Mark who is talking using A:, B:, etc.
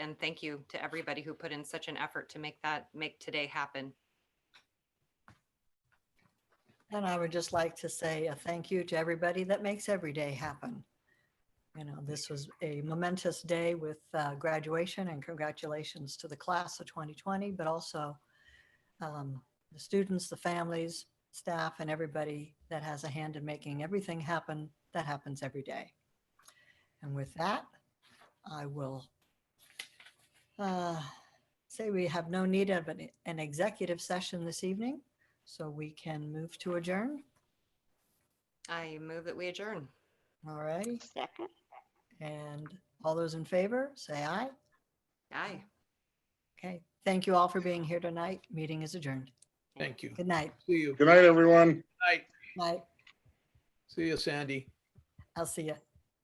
A: and thank you to everybody who put in such an effort to make that, make today happen.
B: And I would just like to say a thank you to everybody that makes every day happen. You know, this was a momentous day with uh, graduation and congratulations to the class of 2020, but also um, the students, the families, staff, and everybody that has a hand in making everything happen that happens every day. And with that, I will uh, say we have no need of an an executive session this evening. So we can move to adjourn.
A: I move that we adjourn.
B: All righty.
C: Second?
B: And all those in favor, say aye.
A: Aye.
B: Okay. Thank you all for being here tonight. Meeting is adjourned.
D: Thank you.
B: Good night.
D: See you.
E: Good night, everyone.
D: Night.
B: Night.
D: See you, Sandy.
B: I'll see you.